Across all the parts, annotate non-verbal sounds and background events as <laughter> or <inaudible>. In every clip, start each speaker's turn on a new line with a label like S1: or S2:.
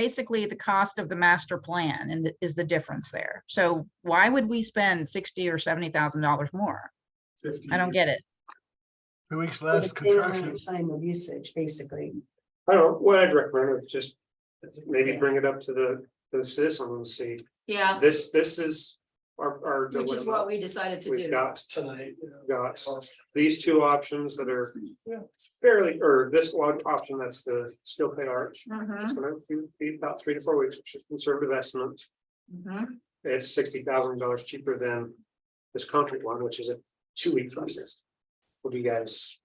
S1: basically the cost of the master plan and th- is the difference there. So why would we spend sixty or seventy thousand dollars more?
S2: fifty.
S1: I don't get it.
S3: Two weeks
S4: For the
S3: less
S4: same amount
S3: construction.
S4: of Time of usage, basically.
S5: I don't, know what I'd recommend is just maybe bring it up to the, the citizen and see,
S6: Yeah,
S5: this, this is our, our
S6: which is what
S5: dilemma.
S6: we decided to
S5: We've
S6: do.
S5: got,
S2: Tonight.
S5: got these two options that are fairly, or this one option, that's the steel plate arch.
S6: Mhm,
S5: It's gonna be- be about three to four weeks, which is conservative estimate.
S6: mhm.
S5: It's sixty thousand dollars cheaper than this concrete one, which is a two-week process. What do you guys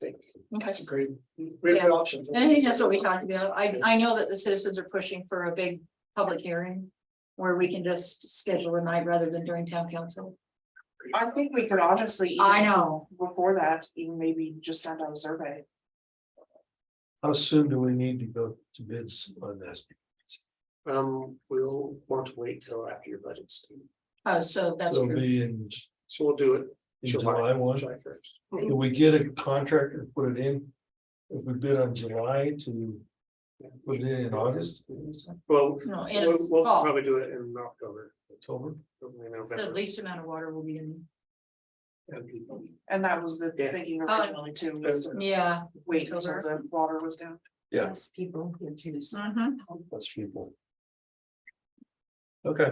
S5: think?
S6: Okay.
S2: That's a great, really good option.
S6: And I think that's what we talked about. I, I know that the citizens are pushing for a big public hearing where we can just schedule a night rather than during town council.
S7: I think we could honestly. even
S6: I know.
S7: Before that, even maybe just send out a survey.
S3: How soon do we need to go to bids on this?
S5: Um, we'll want to wait till after your budget's due.
S6: Oh, so that's
S3: So
S6: true.
S3: be in
S5: So we'll do it
S3: in July one.
S5: July first.
S3: Do we get a contractor, to put it in? If we bid on July to put it in in August,
S5: Well,
S6: No, and
S5: we'll,
S6: it's
S5: we'll
S6: fall.
S5: probably do it in October,
S3: October?
S5: probably
S6: The
S5: November.
S6: least amount of water will be in,
S7: And that was the
S5: Yeah.
S7: thinking
S6: Oh.
S7: originally too, was to
S6: yeah.
S7: wait until the water was down.
S3: Yeah.
S4: Yes, people here too. so-
S6: mhm,
S3: That's people. Okay.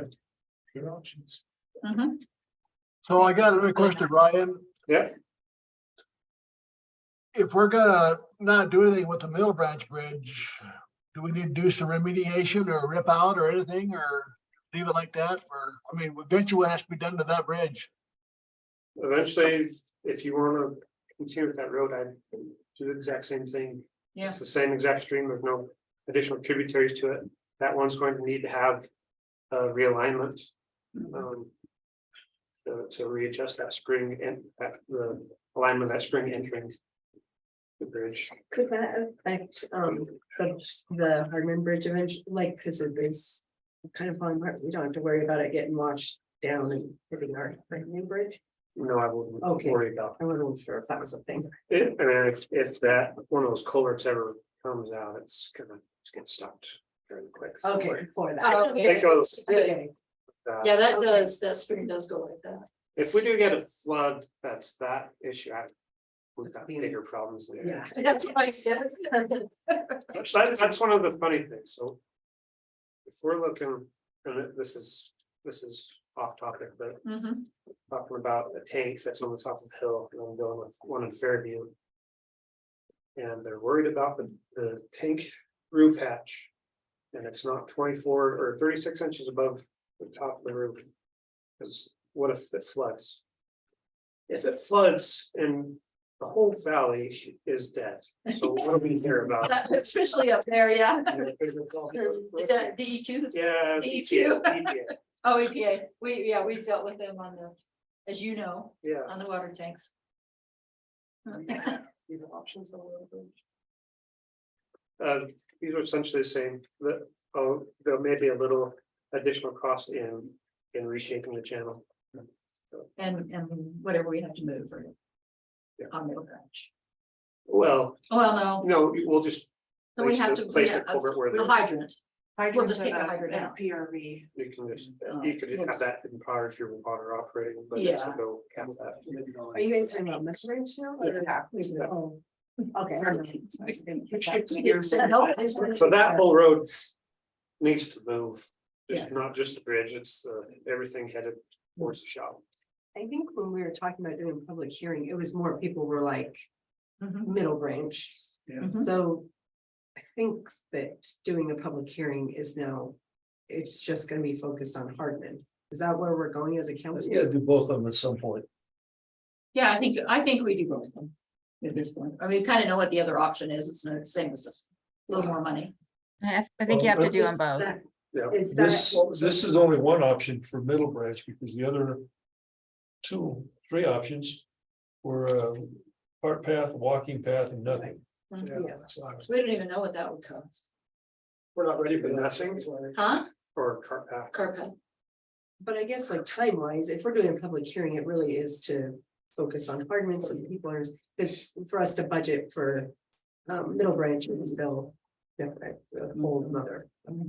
S2: Good options.
S6: mhm.
S3: So I got another question, Ryan.
S5: Yeah.
S3: If we're gonna not do anything with the Mill Branch Bridge, do we need to do some remediation or rip out or anything or leave it like that for, I mean, eventually it has to be done to that bridge.
S5: Eventually, if you wanna continue with that road, I'd do the exact same thing.
S6: Yeah.
S5: It's the same exact stream, there's no additional tributaries to it. That one's going to need to have uh realignment.
S4: Mm-hmm.
S5: um, To to readjust that spring and that the alignment of that spring entering. The bridge.
S4: Could that affect, um, the, the Hardman Bridge eventually, like, cause it is kind of falling apart, we don't have to worry about it getting washed down and hitting our Hardman Bridge?
S5: No, I wouldn't
S4: Okay.
S5: worry about
S4: I wasn't sure if that was a thing.
S5: It, I mean, if, if that, one of those culverts ever comes out, it's gonna, it's getting stopped very quick.
S4: Okay, <laughs> before
S6: Oh,
S4: that.
S5: It
S6: okay.
S5: goes,
S4: Okay.
S5: uh,
S6: Yeah, that
S4: Okay.
S6: does, that stream does go like that.
S5: if we do get a flood, that's that issue, I. We've got
S4: Being-
S5: bigger problems there.
S4: <laughs> Yeah.
S6: That's what I said.
S5: That's, that's one of the funny things, so. If we're looking, and this is, this is off topic, but
S6: Mhm,
S5: talking about the tanks that's on the top of the hill, and I'm going with one in Fairview. And they're worried about the, the tank roof hatch. And it's not twenty-four or thirty-six inches above the top of the roof. Cause what if it floods? If it floods and the whole valley is dead, so what do we care
S6: <laughs>
S5: about?
S6: That- Especially up there, yeah. Is that DEQ?
S5: Yeah.
S6: DEQ?
S5: yeah,
S6: Oh, EPA, we, yeah, we've dealt with them on the, as you know,
S5: Yeah.
S6: on the water tanks.
S5: options on Uh, these are essentially the same, The- oh, there may be a little additional cost in, in reshaping the channel.
S6: And, and whatever we have to move for.
S5: Yeah.
S6: On Middle Branch.
S5: Well,
S6: Well,
S5: no, we'll just.
S6: no, we
S5: place
S6: have
S5: the-
S6: to.
S5: Place the
S6: yeah,
S5: culvert where
S6: The
S5: the-
S6: hydrant, We'll just take the hydrant
S7: And
S6: out.
S7: PRV.
S5: you can just, you could have that in power if you're water operating, but it's
S6: Yeah.
S5: go cap that.
S4: Are you guys talking about measuring now? or- Oh, Okay.
S5: So that whole road needs to move. It's not just the bridge, it's the, everything headed towards the shop.
S4: I think when we were talking about doing a public hearing, it was more people were like
S6: Mhm.
S4: middle range.
S2: Yeah.
S6: Mhm.
S4: So I think that doing a public hearing is now, it's just gonna be focused on Hardman. Is that where we're going as a county?
S3: do both of them at some point.
S6: yeah, I think, I think we do both of them. At this point, I mean, kind of know what the other option is, it's not the same as this, a little more money.
S1: I I think you
S3: Well,
S1: have to do
S4: Is
S1: them both.
S4: that-
S5: Yeah.
S4: Is
S3: This,
S4: that,
S3: this is only one option for Middle Branch because the other two, three options were uh, cart path, walking path and nothing.
S4: Mm-hmm. Yeah.
S3: that's what I was-
S6: We don't even know what that would cost,
S5: We're not ready for that thing
S6: huh?
S5: or uh, cart path.
S6: Carpet,
S4: but I guess like time wise, if we're doing a public hearing, it really is to focus on Hardman, so people are, because for us to budget for um, middle branch is still Yeah, right, the whole mother.